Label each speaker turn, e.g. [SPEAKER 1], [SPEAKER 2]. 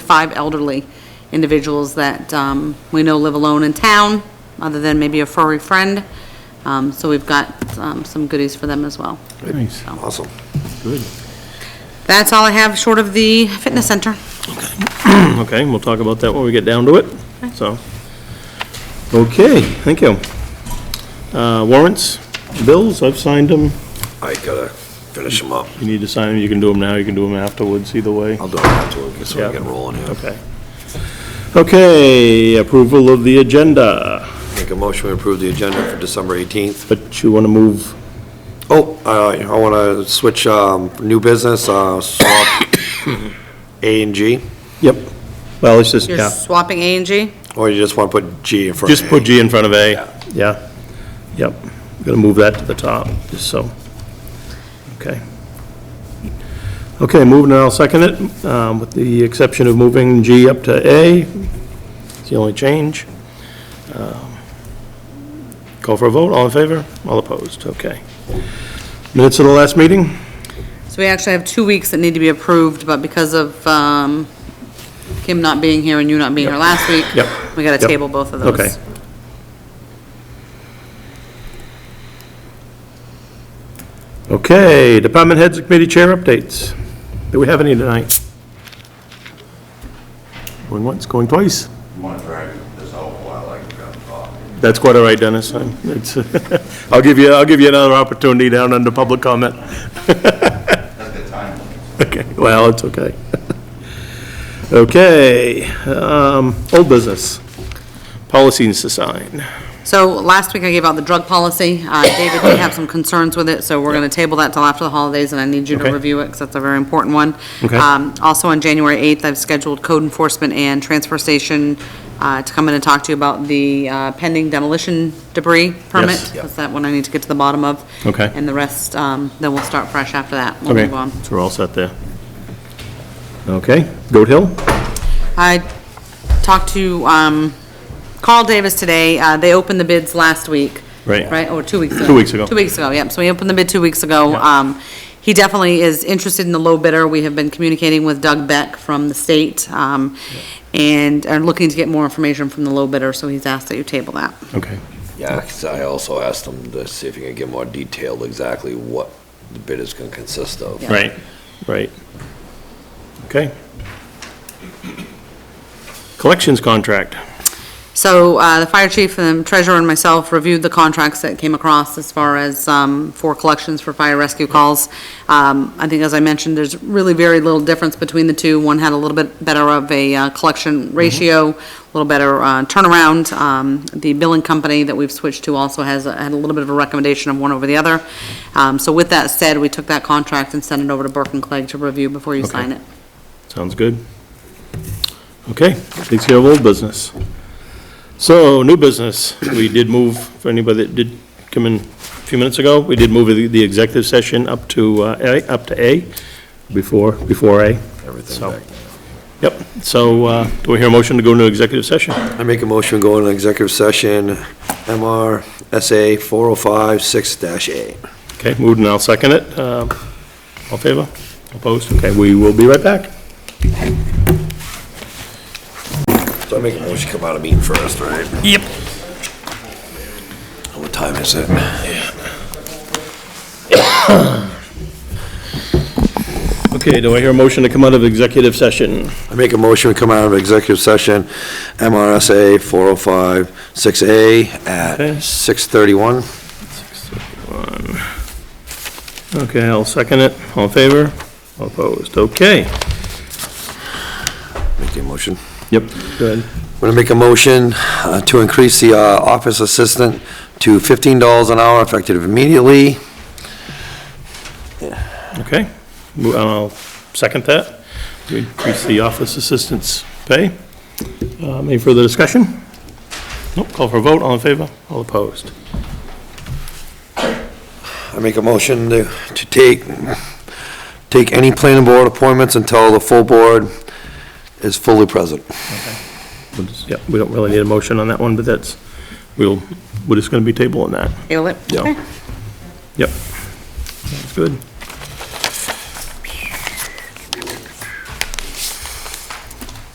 [SPEAKER 1] five elderly individuals that um, we know live alone in town, other than maybe a furry friend. Um, So we've got um, some goodies for them as well.
[SPEAKER 2] Nice.
[SPEAKER 3] Awesome.
[SPEAKER 2] Good.
[SPEAKER 1] That's all I have, short of the fitness center.
[SPEAKER 2] Okay, we'll talk about that when we get down to it, so. Okay, thank you. Uh, warrants, bills, I've signed them.
[SPEAKER 3] I gotta finish them up.
[SPEAKER 2] You need to sign them, you can do them now, you can do them afterwards, either way.
[SPEAKER 3] I'll do it afterward, so
[SPEAKER 2] Yeah.
[SPEAKER 3] we get rolling here.
[SPEAKER 2] Okay. Okay, approval of the agenda,
[SPEAKER 3] Make a motion to approve the agenda for December 18th.
[SPEAKER 2] but you want to move,
[SPEAKER 3] Oh, I, I wanna switch, um, new business, uh, swap A and G,
[SPEAKER 2] yep. Well, it's just,
[SPEAKER 1] You're
[SPEAKER 2] yeah,
[SPEAKER 1] swapping A and G?
[SPEAKER 3] or you just wanna put G in front of A?
[SPEAKER 2] just put G in front of A, yeah. Yep, gonna move that to the top, just so. Okay. Okay, moving, I'll second it, um, with the exception of moving G up to A. It's the only change. Um, Call for a vote, all in favor, all opposed, okay. Minutes of the last meeting?
[SPEAKER 1] So we actually have two weeks that need to be approved, but because of um, Kim not being here and you not being here last week,
[SPEAKER 2] Yep.
[SPEAKER 1] we got to
[SPEAKER 2] Yep.
[SPEAKER 1] table both of those.
[SPEAKER 2] Okay. Okay, department heads and committee chair updates. Do we have any tonight? Going once, going twice?
[SPEAKER 4] want to drag this out while I can talk.
[SPEAKER 2] That's quite all right, Dennis. I'm- it's- I'll give you, I'll give you another opportunity down under public comment.
[SPEAKER 4] That's the time.
[SPEAKER 2] Okay, well, it's okay. Okay, um, old business, policies to sign.
[SPEAKER 1] So last week I gave out the drug policy. Uh, David did have some concerns with it, so we're going to table that till after the holidays, and I need you
[SPEAKER 2] Okay.
[SPEAKER 1] to review it because that's a very important one.
[SPEAKER 2] Okay.
[SPEAKER 1] Um, Also on January 8th, I've scheduled code enforcement and transfer station uh, to come in and talk to you about the uh, pending demolition debris permit.
[SPEAKER 2] Yes.
[SPEAKER 1] That's that one I need to get to the bottom of.
[SPEAKER 2] Okay.
[SPEAKER 1] And the rest, um, then we'll start fresh after that. We'll
[SPEAKER 2] Okay,
[SPEAKER 1] move on.
[SPEAKER 2] so we're all set there. Okay, Goat Hill?
[SPEAKER 1] I talked to um, Carl Davis today. Uh, They opened the bids last week.
[SPEAKER 2] Right.
[SPEAKER 1] Right, or two weeks ago.
[SPEAKER 2] Two weeks ago.
[SPEAKER 1] Two weeks ago, yep. So he opened the bid two weeks ago.
[SPEAKER 2] Yeah.
[SPEAKER 1] Um, He definitely is interested in the low bidder. We have been communicating with Doug Beck from the state um, and are looking to get more information from the low bidder, so he's asked that you table that.
[SPEAKER 2] Okay,
[SPEAKER 3] Yeah, 'cause I also asked them to see if you can get more detailed exactly what the bid is gonna consist of.
[SPEAKER 1] Yeah.
[SPEAKER 2] right, right. Okay. Collections contract.
[SPEAKER 1] So uh, the fire chief and treasurer and myself reviewed the contracts that came across as far as um, for collections for fire rescue calls. Um, I think, as I mentioned, there's really very little difference between the two. One had a little bit better of a uh, collection ratio, a little better uh, turnaround. Um, The billing company that we've switched to also has, had a little bit of a recommendation of one over the other. Um, So with that said, we took that contract and sent it over to Burke and Clegg to review before you
[SPEAKER 2] Okay.
[SPEAKER 1] sign it.
[SPEAKER 2] Sounds good. Okay, takes care of old business. So, new business, we did move, for anybody that did come in a few minutes ago, we did move the the executive session up to, uh, A, up to A, before, before A.
[SPEAKER 3] Everything
[SPEAKER 2] So-
[SPEAKER 3] back.
[SPEAKER 2] Yep, so, uh, do we hear a motion to go into executive session?
[SPEAKER 3] I make a motion, to go into executive session, MR SA 4056-A.
[SPEAKER 2] Okay, moved and I'll second it. Um, All in favor? Opposed? Okay, we will be right back.
[SPEAKER 3] So I make a motion, to come out of meeting first, right?
[SPEAKER 2] Yep.
[SPEAKER 3] What time is it?
[SPEAKER 2] Okay, do I hear a motion to come out of executive session?
[SPEAKER 3] I make a motion, to come out of executive session, MRSA 4056A at
[SPEAKER 2] Okay.
[SPEAKER 3] 6:31.
[SPEAKER 2] Okay, I'll second it. All in favor? All Opposed? Okay.
[SPEAKER 3] Make the motion.
[SPEAKER 2] Yep. Good.
[SPEAKER 3] I'm going to make a motion uh, to increase the uh, office assistant to $15 an hour effective immediately.
[SPEAKER 2] Okay. Mo- I'll second that. We increase the office assistant's pay. Um, Any further discussion? Nope, call for a vote. All in favor? All opposed?
[SPEAKER 3] I make a motion to to take, take any planning board appointments until the full board is fully present.
[SPEAKER 2] We'll just- Yep, we don't really need a motion on that one, but that's, we'll, we're just going to be tabling that.
[SPEAKER 1] Table it?
[SPEAKER 3] Yeah.
[SPEAKER 1] Okay.
[SPEAKER 2] Yep. Sounds good.